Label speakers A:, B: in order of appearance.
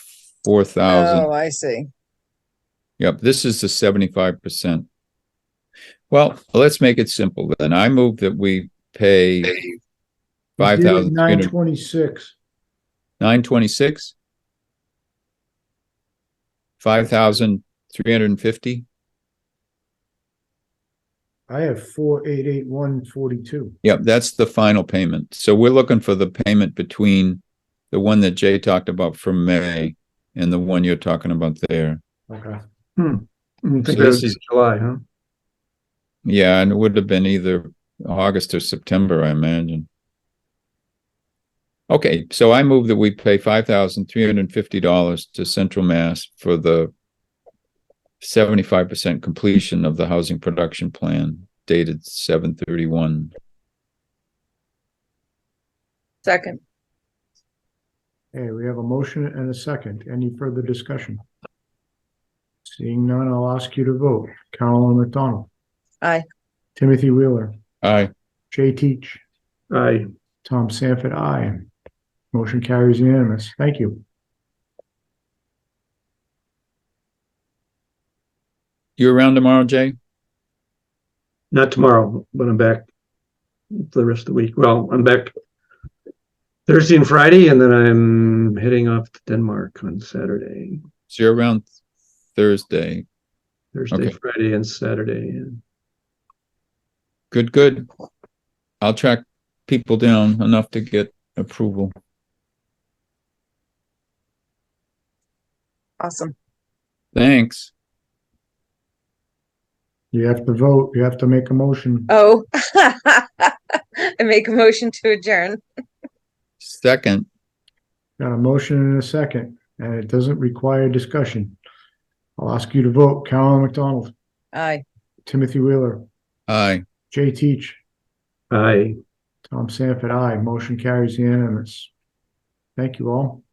A: four thousand.
B: Oh, I see.
A: Yep, this is the seventy-five percent. Well, let's make it simple then. I move that we pay five thousand,
C: Nine twenty-six.
A: nine twenty-six? Five thousand three hundred and fifty?
C: I have four eight eight one forty-two.
A: Yep, that's the final payment. So we're looking for the payment between the one that Jay talked about from May and the one you're talking about there.
C: Okay.
D: I
A: So
D: Hmm. think that
A: this
D: was
A: is-
D: July, huh?
A: Yeah, and it would have been either August or September, I imagine. Okay, so I move that we pay five thousand three hundred and fifty dollars to Central Mass for the seventy-five percent completion of the housing production plan dated seven thirty-one.
B: Second,
C: Hey, we have a motion and a second. Any further discussion? Seeing none, I'll ask you to vote. Carolyn McDonald.
B: Aye.
C: Timothy Wheeler,
A: Aye.
C: Jay Teach,
D: Aye.
C: Tom Sanford, aye. Motion carries unanimous. Thank you.
A: You around tomorrow, Jay?
D: Not tomorrow, but I'm back for the rest of the week. Well, I'm back Thursday and Friday, and then I'm heading off to Denmark on Saturday,
A: So you're around Thursday.
D: Thursday,
A: Okay.
D: Friday, and Saturday. And
A: Good, good. I'll track people down enough to get approval.
B: awesome.
A: Thanks.
C: You have to vote. You have to make a motion.
B: Oh. I make a motion to adjourn.
A: Second,
C: Got a motion and a second, and it doesn't require discussion. I'll ask you to vote. Carolyn McDonald,
B: Aye.
C: Timothy Wheeler,
A: aye.
C: Jay Teach,
D: I.
C: Tom Sanford, aye. Motion carries unanimous. Thank you all.